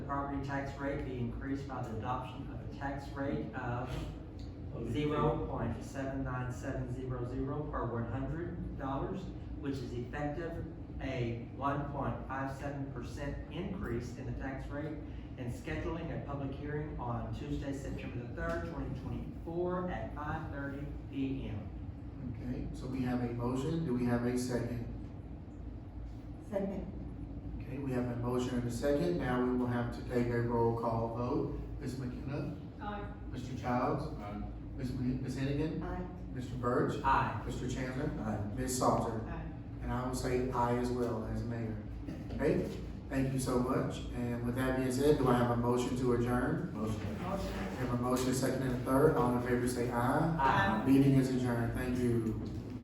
property tax rate be increased by the adoption of a tax rate of zero point seven nine seven zero zero per one hundred dollars, which is effective a one point five seven percent increase in the tax rate, and scheduling a public hearing on Tuesday, September the third, twenty twenty-four, at five thirty P M. Okay, so we have a motion, do we have a second? Second. Okay, we have a motion and a second, now we will have to take a roll call vote. Ms. McKenna? Aye. Mr. Childs? Aye. Ms. Mc- Ms. Hennigan? Aye. Mr. Birch? Aye. Mr. Chandler? Ms. Salter? And I will say aye as well as mayor. Okay, thank you so much, and with that being said, do I have a motion to adjourn? Motion. We have a motion, second and a third, all in favor say aye. Aye. Meeting is adjourned, thank you.